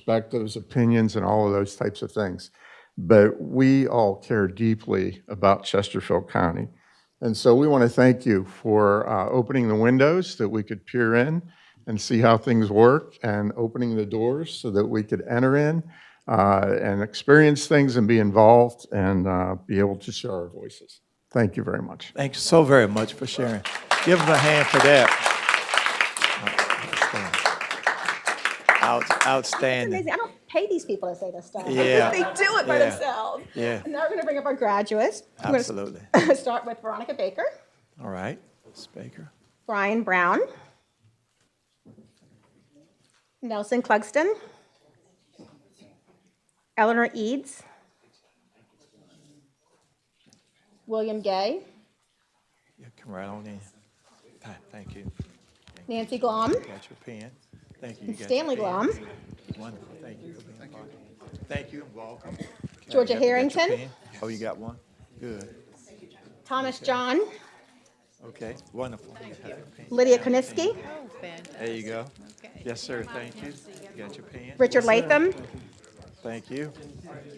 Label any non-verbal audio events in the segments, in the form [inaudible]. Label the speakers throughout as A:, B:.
A: perspectives, opinions, and all of those types of things. But we all care deeply about Chesterfield County. And so we want to thank you for uh, opening the windows that we could peer in and see how things work, and opening the doors so that we could enter in uh, and experience things and be involved and uh, be able to share our voices. Thank you very much.
B: Thank you so very much for sharing. Give them a hand for that. Out- Outstanding.
C: Amazing. I don't pay these people to say this stuff.
B: Yeah.
C: [laughs] they do it by
B: Yeah.
C: themselves.
B: Yeah.
C: And now we're going to bring up our graduates.
B: Absolutely.
C: We're going to [laughs] start with Veronica Baker,
B: All right, Ms. Baker.
C: Brian Brown, Nelson Clugston, Eleanor Eads, William Gay,
B: You come right on in. Th- Thank you.
C: Nancy Glom,
B: Got your pen. Thank you. You got your
C: Stanley
B: pen.
C: Glom,
B: Wonderful. Thank you for being part of it. Thank you and welcome. You
C: Georgia
B: got- you got your
C: Harrington,
B: pen? Oh, you got one? Good.
C: Thomas John,
B: Okay, wonderful. You got your pen.
C: Lydia Koniski,
D: Oh, fantastic.
B: There you go.
D: Okay.
B: Yes, sir. Thank you. You got your pen?
C: Richard
B: Yes, sir.
C: Latham,
B: Thank you.
D: Mr.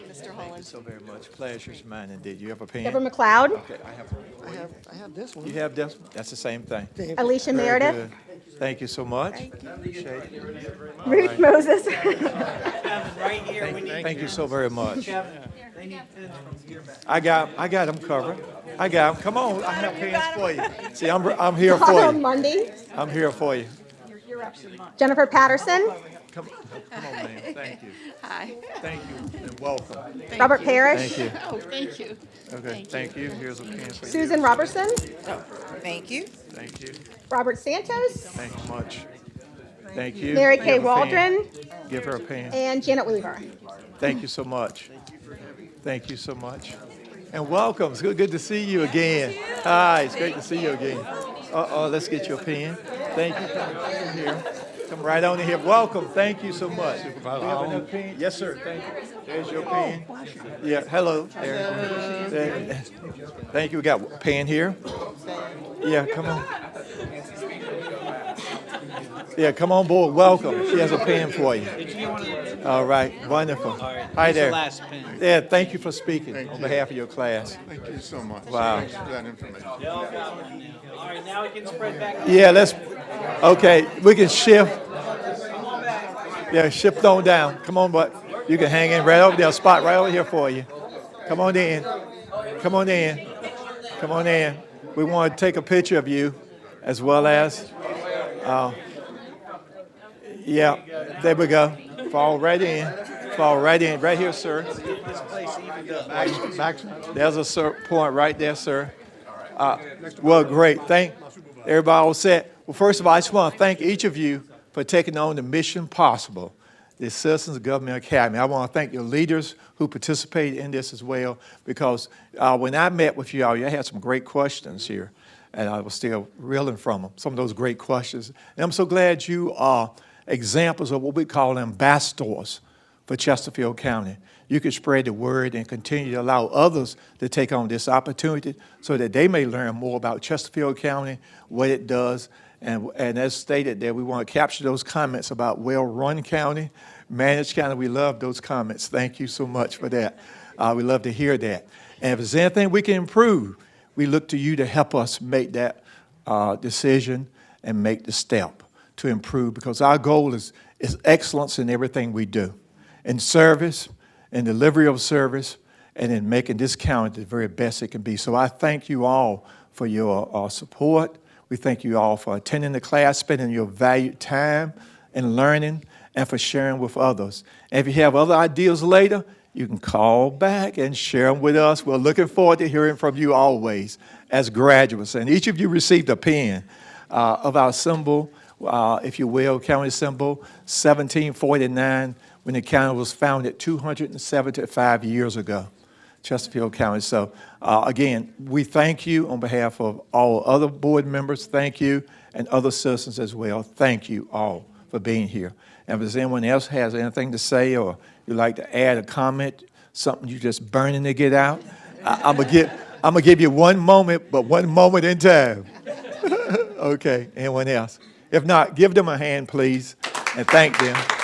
B: Thank you
D: Holland.
B: so very much. Pleasure's mine indeed. You have a pen?
C: Deborah McLeod,
B: Okay, I have.
E: I have, I have this one.
B: You have this? That's the same thing.
C: Alicia
B: Very
C: Meredith,
B: good. Thank you so much. Appreciate it.
C: Ruth Moses,
F: Right here, we need.
B: Thank you so very much. I got, I got them covered. I got them. Come on, I have pens for you. See, I'm, I'm here
C: [laughs]
B: for
C: Paul
B: you.
C: Mundy,
B: I'm here for you.
C: Jennifer Patterson,
B: Come, come on, ma'am. Thank you.
D: Hi.
B: Thank you and welcome.
D: Thank
C: Robert
D: you.
C: Parrish,
B: Thank you.
D: Oh, thank you.
B: Okay, thank you. Here's a pen for you.
C: Susan Robertson,
F: Thank you.
B: Thank you.
C: Robert Santos,
B: Thank you much. Thank you.
C: Mary
B: Give
C: Kay
B: a pen.
C: Waldron,
B: Give her a pen.
C: and Janet Weaver.
B: Thank you so much. Thank you so much. And welcome. It's good, good to see you again. Hi, it's great to see you again. Uh-oh, let's get your pen. Thank you. Come right in here. Come right on in here. Welcome. Thank you so much. Do you have another pen? Yes, sir. Thank you. There's your pen. Yeah, hello. There. There. Thank you. We got a pen here. Yeah, come on. Yeah, come on board. Welcome. She has a pen for you. All right, wonderful. Hi
F: here's the
B: there.
F: last pen.
B: Yeah, thank you for speaking on behalf of your class.
A: Thank you so much.
B: Wow.
A: Thanks for that information.
F: All right, now we can spread back.
B: Yeah, let's, okay, we can shift. Yeah, shift on down. Come on, but you can hang in right over there, spot right over here for you. Come on in. Come on in. Come on in. We want to take a picture of you as well as, uh, yeah, there we go. Fall right in. Fall right in. Right here, sir. Max- There's a cer- point right there, sir. Uh, Well, great. Thank everybody all set. Well, first of all, I just want to thank each of you for taking on the mission possible, the Citizens Government Academy. I want to thank your leaders who participated in this as well, because uh, when I met with you all, you had some great questions here, and I was still reeling from them, some of those great questions. And I'm so glad you are examples of what we call ambassadors for Chesterfield County. You can spread the word and continue to allow others to take on this opportunity so that they may learn more about Chesterfield County, what it does. And, and as stated there, we want to capture those comments about well-run county, managed county. We love those comments. Thank you so much for that. Uh, we love to hear that. And if there's anything we can improve, we look to you to help us make that uh, decision and make the step to improve because our goal is, is excellence in everything we do in service, in delivery of service, and in making this county the very best it can be. So I thank you all for your uh, support. We thank you all for attending the class, spending your valued time and learning, and for sharing with others. And if you have other ideas later, you can call back and share them with us. We're looking forward to hearing from you always as graduates. And each of you received a pen uh, of our symbol, uh, if you will, county symbol, 1749, when the county was founded 275 years ago, Chesterfield County. So uh, again, we thank you on behalf of all other board members, thank you, and other citizens as well. Thank you all for being here. And if there's anyone else has anything to say or you'd like to add a comment, something you're just burning to get out, I- I'm gonna give, I'm gonna give you one moment, but one moment in time. [laughs] Okay, anyone else? If not, give them a hand, please, and thank them.